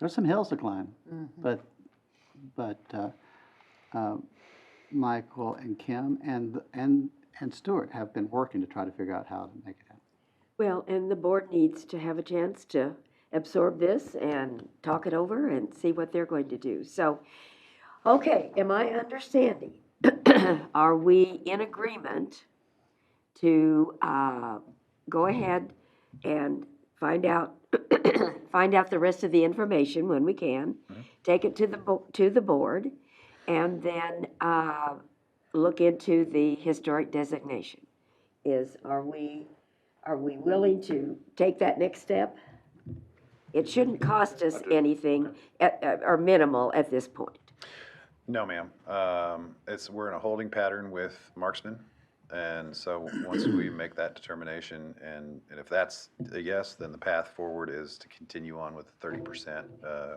There's some hills to climb, but, but, uh, uh, Michael and Kim and, and, and Stuart have been working to try to figure out how to make it happen. Well, and the board needs to have a chance to absorb this and talk it over and see what they're going to do. So, okay, am I understanding? Are we in agreement to uh, go ahead and find out, find out the rest of the information when we can? Take it to the, bo- to the board and then uh, look into the historic designation? Is, are we are we willing to take that next step? It shouldn't cost us anything, at- at- or minimal at this point. No, ma'am. Um, it's, we're in a holding pattern with Marksman. And so once we make that determination and, and if that's a yes, then the path forward is to continue on with the thirty percent, uh,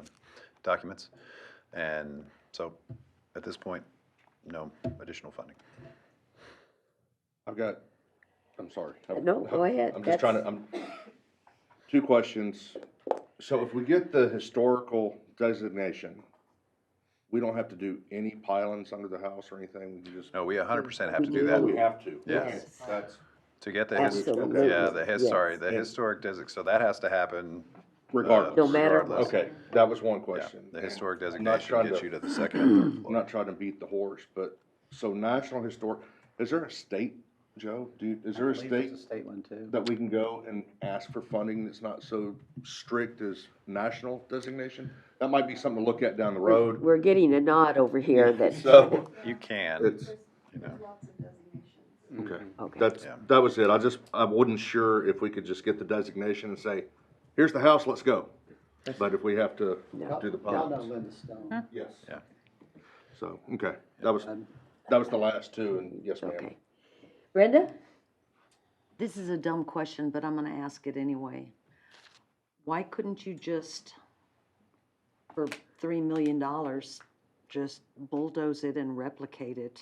documents. And so at this point, no additional funding. I've got, I'm sorry. I've- No, go ahead. I'm just trying to, I'm, two questions. So if we get the historical designation, we don't have to do any pilings under the house or anything, we can just. No, we hundred percent have to do Oh, we that. have to. Yes. Okay, That's To get the, his- Absolutely, yeah, the his, sorry, yes. the historic designation. so that has to happen. regardless. No matter what. regardless. Okay, that was one Yeah, question. the historic I'm not designation trying gets you to the second and third I'm floor. not trying to beat the horse, but, so National Historic, is there a state, Joe? Do, you- is there I a believe state there's a state one too. that we can go and ask for funding that's not so strict as national designation? That might be something to look at down the road. We're getting a nod over here that, So You can, it's, you know. okay. okay, That's, Yeah. that was it. I just, I wasn't sure if we could just get the designation and say, here's the house, let's go. But if we have to do the ponds. Linda Stone. Yes. Yeah. So, okay, that was, that was the last two and yes, ma'am. okay. Brenda? This is a dumb question, but I'm gonna ask it anyway. Why couldn't you just, for three million dollars, just bulldoze it and replicate it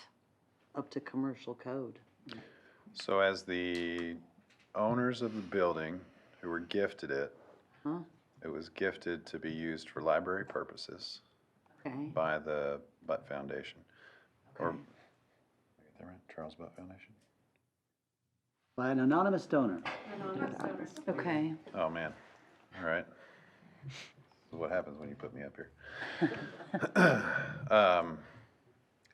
up to commercial code? So as the owners of the building who were gifted it, Huh? it was gifted to be used for library purposes Okay, by the Butt Foundation. Or, did I get that right? Charles Butt Foundation? By an anonymous donor. okay. Oh, man. All right. This is what happens when you put me up here. Um,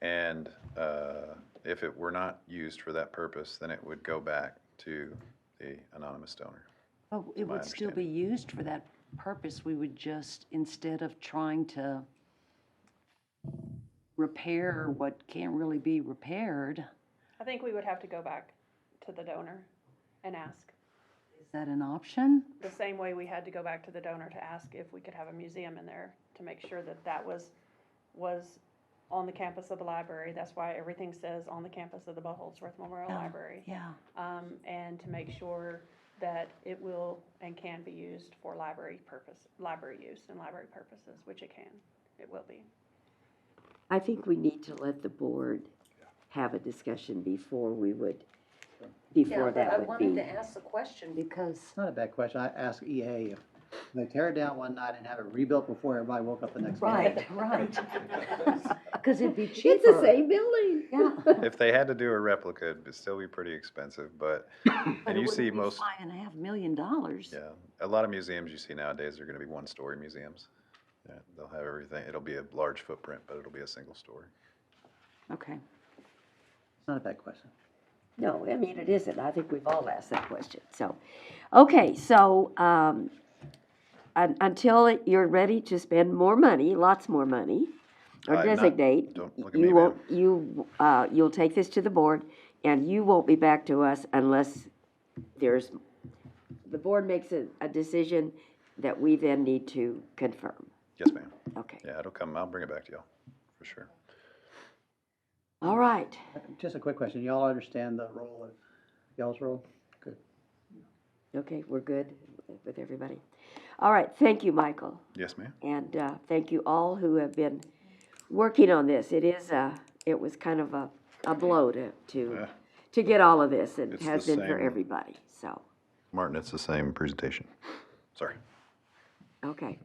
and, uh, if it were not used for that purpose, then it would go back to the anonymous donor. Oh, it My would still be used for that purpose. We would just, instead of trying to repair what can't really be repaired, I think we would have to go back to the donor and ask, is that an option? the same way we had to go back to the donor to ask if we could have a museum in there to make sure that that was, was on the campus of the library. That's why everything says on the campus of the Buckholzworth Memorial Yeah, Library. Yeah. Um, and to make sure that it will and can be used for library purpose, library use and library purposes, which it can, it will be. I think we need to let the board have a discussion before we would, before that would be. ask the question because. It's not a bad question. I asked EA if they tear it down one night and have it rebuilt before everybody woke up the next morning. Right, right. Because it'd be cheaper. It's the same building. Yeah. If they had to do a replica, it'd still be pretty expensive, but, But and you it wouldn't see be most, Five and a half million dollars. yeah, a lot of museums you see nowadays are gonna be one-story museums. Yeah, They'll have everything, it'll be a large footprint, but it'll be a single story. Okay. It's not a bad question. No, I mean, it isn't. I think we've all asked that question, so. Okay, so, um, un- until it- you're ready to spend more money, lots more money, or I'm not- designate, don't look at me, you ma'am. won't, you, uh, you'll take this to the board, and you won't be back to us unless there's, the board makes a, a decision that we then need to confirm. Yes, ma'am. Okay, Yeah, it'll come, I'll bring it back to y'all, for sure. all right. Just a quick question. Y'all understand the role of, y'all's role? Good. Okay, we're good with everybody. All right, thank you, Michael. Yes, ma'am? And uh, thank you all who have been working on this. It is a, it was kind of a, a blow to, to, to get all of this, and It's has the been for same- everybody, so, Martin, it's the same presentation. Sorry. okay.